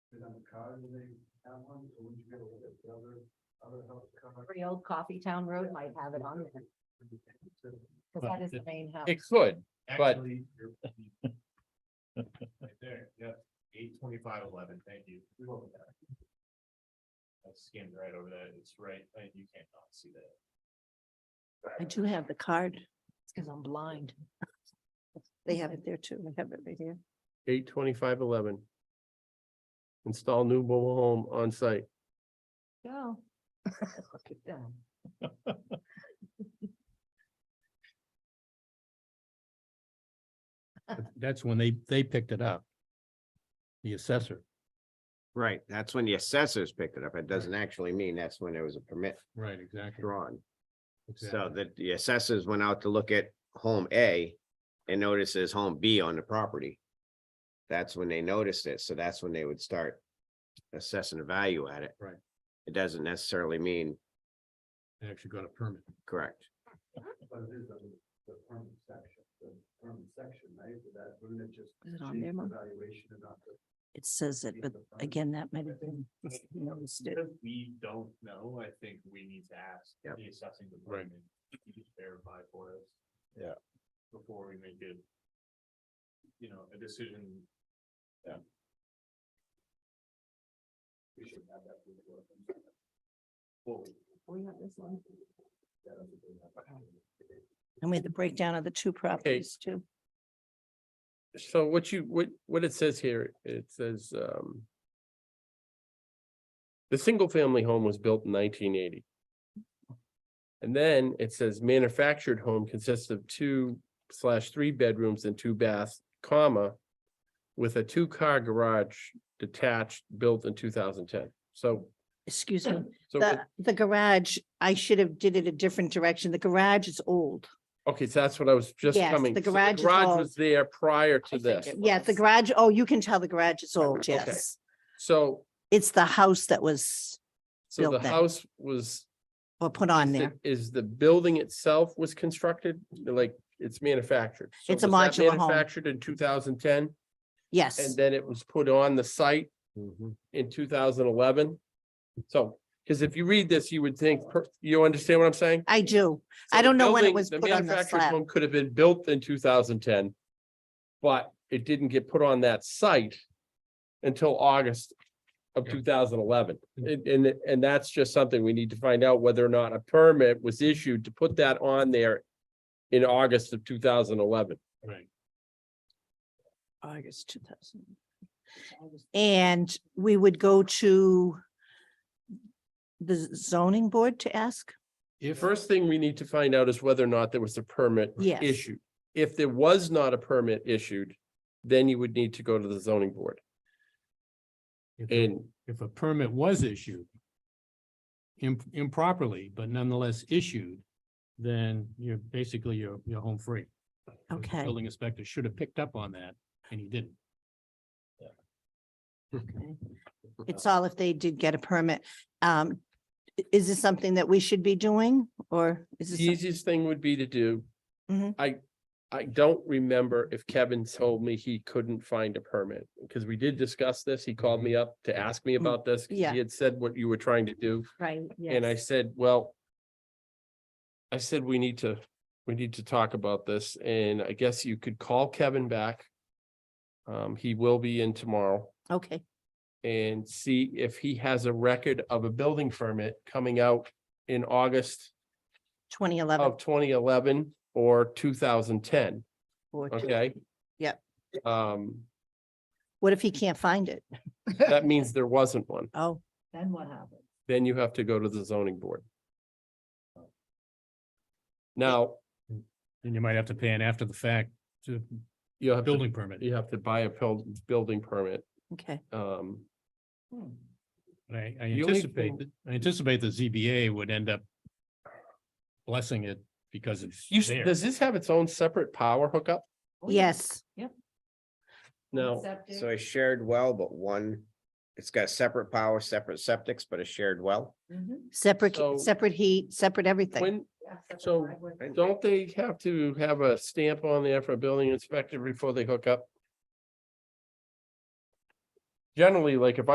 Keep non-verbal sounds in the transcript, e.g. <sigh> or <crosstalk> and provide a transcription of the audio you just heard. kind of car, do they have one, or would you be able to get the other, other house car? Every old coffee town road might have it on there, because that is the main house. It could, But- Actually, <laughs> you're- Right there, yeah, eight twenty-five eleven, thank you. We won't look at it. I skimmed right over that, it's right, uh, you can't not see that. I do have the card. because I'm blind. They have it there too. I have it right here. eight twenty-five eleven. Install new mobile home on site. Go. <laughs> Look at them. That's when they, they picked it up. The assessor, Right, that's when the assessors picked it up. It doesn't actually mean that's when there was a permit right, exactly. drawn. So exactly. that the assessors went out to look at home A and noticed there's home B on the property. That's when they noticed it, so that's when they would start assessing the value at it. Right. It doesn't necessarily mean They Actually got a permit. correct. But it is on the permanent section, the permanent section, right, Would that, wouldn't it just Is it on change there, the Mom? valuation and not the. It says it, but again, that might have been noticed it. Because we don't know, I think we need to ask Yep. the assessing Right. department, to just verify for us. Yeah. Before we make it. You know, a decision. Yeah. We should have that. before. Fully. We have this one. Yeah, that's a good one. And we had the breakdown of the two properties too. So what you, what, what it says here, it says, um. The single family home was built in nineteen eighty. And then it says manufactured home consists of two slash three bedrooms and two baths, comma. With a two car garage detached, built in two thousand ten. So, Excuse me. so, it- The, the garage, I should have did it a different direction. The garage is old. okay, so that's what I was just Yes, coming. the so garage is all- was there prior to this. Yeah, the garage, oh, you can tell the garage is old, Okay. yes. So, It's the house that was, so the Built then. house was or put on Is the- there. Is the building itself was constructed, like it's manufactured? So It's a was that modular home. Manufactured in two thousand ten, Yes, and then it was put on the site Mm-hmm. in two thousand eleven. So, because if you read this, you would think, per- you understand what I'm saying? I do. So I the don't know when building- it was put on the manufactured slab. home Could have been built in two thousand ten. But it didn't get put on that site until August of Yeah. two thousand eleven. And, and, and that's just something we need to find out whether or not a permit was issued to put that on there in August of two thousand eleven. Right. August two thousand. And we would go to the zoning board to ask? The If, first thing we need to find out is whether or not there was a permit Yes. issued. If there was not a permit issued, then you would need to go to the zoning board. if, And if a permit was issued im- improperly, but nonetheless issued, then you're basically, you're, you're home free. The Okay. Building inspector should have picked up on that and he didn't. Okay. It's all if they did get a permit. Um, i- is this something that we should be doing or is the this? some- easiest thing would be to do. Mhm. I, I don't remember if Kevin told me he couldn't find a permit, because we did discuss this. He called me up to ask me about this. 'cause Mm-hmm. Yeah. He had said what you were trying to do, Right, yes. and I said, well, I said, we need to, we need to talk about this, and I guess you could call Kevin back. Um, he will be in tomorrow Okay, and see if he has a record of a building permit coming out in August twenty eleven of twenty eleven or two thousand ten, or two. okay? Yep. Um, <laughs> What if he can't find it? that means there wasn't one. Oh, Then what happens? Then you have to go to the zoning board. Now, And you might have to pay an after the fact to you have, to- building permit. you have to buy a buil- building permit, okay. um, Hmm. But I, I The only anticipate, thing- that- I anticipate the ZBA would end up blessing it because it's you, s- there. does this have its own separate power hookup? Oh, yeah. Yes, No, Septic. So a shared well, but one, it's got separate power, separate septics, but a shared well. Mhm. separate, So- separate heat, separate everything. when, Yeah, separate So, driveway. don't they have to have a stamp on there for a building inspector before they hook up? Generally, like if